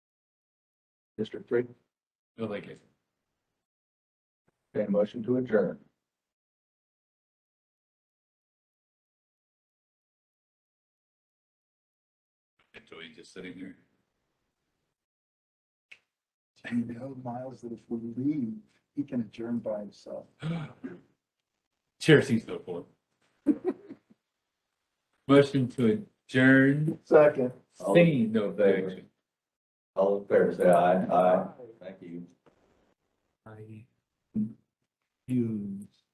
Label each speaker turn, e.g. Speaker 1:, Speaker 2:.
Speaker 1: District Three?
Speaker 2: No, thank you.
Speaker 1: Okay, motion to adjourn.
Speaker 2: Joey just sitting here.
Speaker 3: Do you know, Miles, that if we leave, he can adjourn by himself?
Speaker 2: Chair seats no for. Motion to adjourn,
Speaker 3: Second.
Speaker 1: All-
Speaker 2: seeing no objection.
Speaker 1: All in favor, say aye. Aye. Thank you.
Speaker 2: I. You.